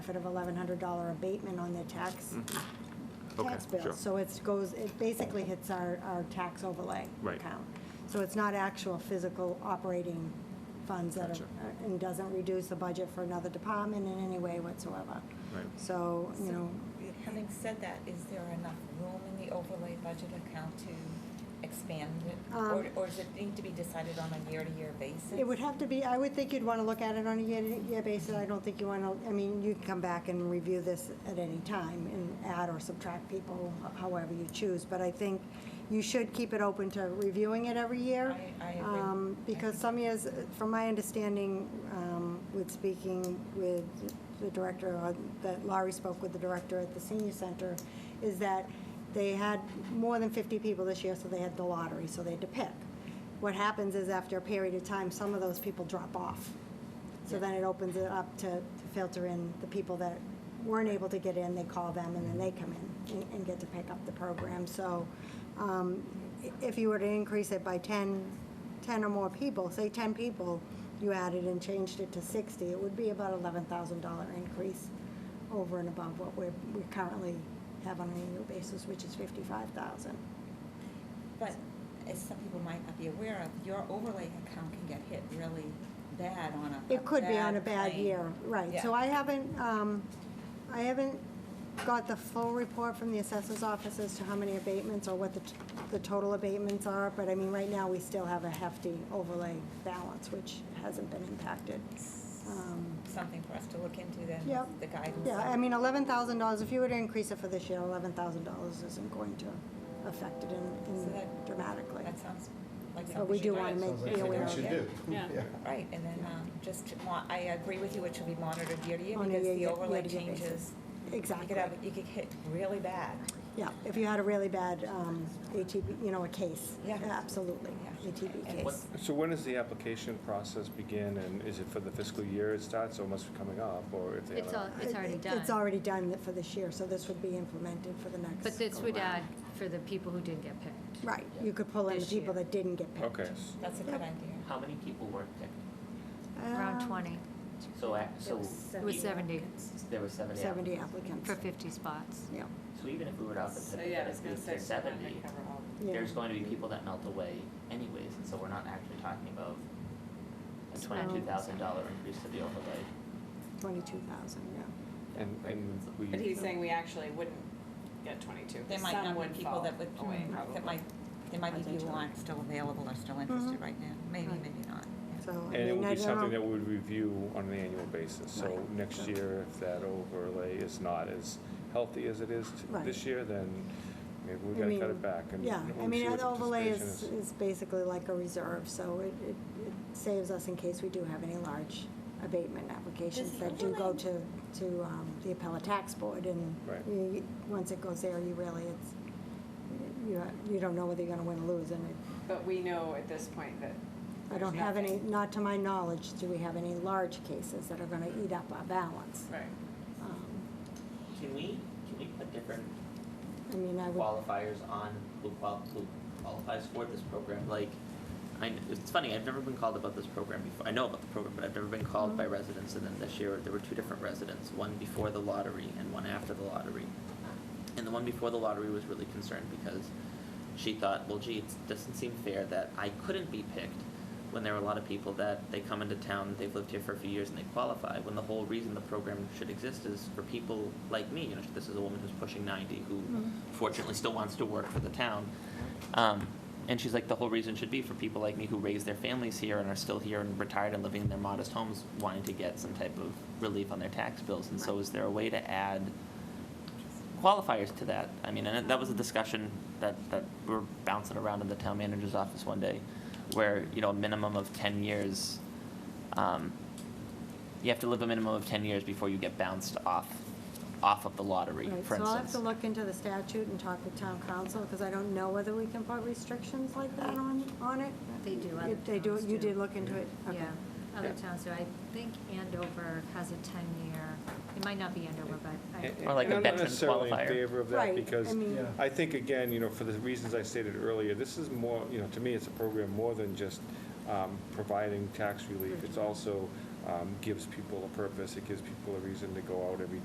benefit of $1,100 abatement on their tax, Mm, Okay, tax bill. sure. So it goes, it basically hits our, our tax overlay Right. account. So it's not actual physical operating funds that Gotcha. are, uh, and doesn't reduce the budget for another department in any way whatsoever. Right. So, you So- know, Having said that, is there enough room in the overlay budget account to expand it? Or, Um, or does it need to be decided on a year-to-year basis? It would have to be, I would think you'd want to look at it on a year-to-year basis. I don't think you want to, I mean, you can come back and review this at any time and add or subtract people however you choose. But I think you should keep it open to reviewing it every year. I- I agree. um, Because some years, from my understanding, um, with speaking with the director, uh, that Laurie spoke with the director at the senior center, is that they had more than 50 people this year, so they had the lottery, so they had to pick what happens is after a period of time, some of those people drop off. So then it opens it up to to filter in the people that weren't able to get in, they call them, and then they come in and- and get to pick up the program. So um, i- if you were to increase it by 10, 10 or more people, say 10 people, you added and changed it to 60, it would be about $11,000 increase over and above what we're, we currently have on an annual basis, which is 55,000. But as some people might not be aware of, your overlay account can get hit really bad on a. It could be on a bad claim. year, right. So Yeah. I haven't, um, I haven't got the full report from the assessor's office as to how many abatements or what the, t- the total abatements are, but I mean, right now, we still have a hefty overlay balance, which hasn't been impacted. Um, Something for us to look into then, Yep. the guidance. Yeah, I mean, eleven thousand dollars, if you were to increase it for this year, eleven thousand dollars isn't going to affect it in, So in that- dramatically. That sounds like But something. we should do be- wanna make- Sounds like be aware something we of should it. do. Yeah. Right, and then, um, just, to mo- I agree with you, it should be monitored year to year On a because the year- overlay year-to-year basis. changes. You Exactly. could have, you could hit really bad. Yeah, if you had a really bad, um, ATB, you know, a case. Yeah. Absolutely, Yeah. ATB And case. what- So when does the application process begin, and is it for the fiscal year it starts, or it must be coming up, or if they have? It's a- all, it's already It- done. It's already done for this year, so this would be implemented for the next. But this would add go-round. for the people who didn't get picked. Right, you could pull in the This year. people that didn't get picked. Okay, s- That's a good Yep. idea. How many people were picked? Around Um, 20, So, a- so it was 70 there were seventy Seventy applicants. applicants. for 50 spots. Yeah, So even if we were out So, to yeah, I was gonna pick say, the so we're not seventy, gonna cover all of yeah. there's going to be people that melt away anyways, and so we're not actually talking about a So- twenty-two thousand dollar increase to the overlay. twenty-two thousand, yeah. and, and we. it. But he's saying we actually wouldn't get twenty-two, There might some not would be people fall that would, away that probably. might, there might be people Potentially. who aren't still available or still interested Mhm. right now. Maybe, Right. maybe not. yeah. So. I And it mean, would I be don't something know. that we would review on an annual basis. So Right. next year, if that overlay is not as healthy as it is t- Right. this year, then maybe we I gotta mean, cut it back. and- Yeah, and I we'll see mean, what the overlay is, participation is basically like a reserve, so it, it it saves us in case we do have any large abatement applications Does the that do go overlay- to, to um, the appellate tax board, and Right. you- once it goes there, you really, it's, you, you don't know whether you're gonna win or lose, and it- But we know at this point that I there's don't have any, nothing. not to my knowledge, do we have any large cases that are gonna eat up our balance. Right. Um, Can we, can we put different I mean, I would, qualifiers on who qual- who qualifies for this program, like, I, kn- it's funny, I've never been called about this program before, I know about the program, but I've never been called Mm-hmm. by residents, and then this year, there were two different residents, one before the lottery and one after the lottery. And the one before the lottery was really concerned because she thought, well, gee, it doesn't seem fair that I couldn't be picked when there are a lot of people that they come into town, they've lived here for a few years and they qualify, when the whole reason the program should exist is for people like me, you know, this is a woman who's pushing ninety, who fortunately still wants to work for the town. Um, and she's like, the whole reason should be for people like me who raise their families here and are still here and retired and living in their modest homes, wanting to get some type of relief on their tax bills, and so is there a way to add qualifiers to that. I mean, and that was a discussion that, that we were bouncing around in the town manager's office one day, where, you know, a minimum of ten years, um, you have to live a minimum of ten years before you get bounced off, off of the lottery, Right, for so I'll have instance. to look into the statute and talk with town council, because I don't know whether we can put restrictions like that on, on it. They do, other If They do, towns you do. did look into it? Okay. Yeah, other Yeah. towns, so I think Andover has a 10-year, it might not be Andover, but I. is. Or like And a I'm not veteran necessarily in qualifier. favor of that, Right, because I mean, Yeah. I think, again, you know, for the reasons I stated earlier, this is more, you know, to me, it's a program more than just um, providing tax relief. It's also um, gives people a purpose, it gives people a reason to go out every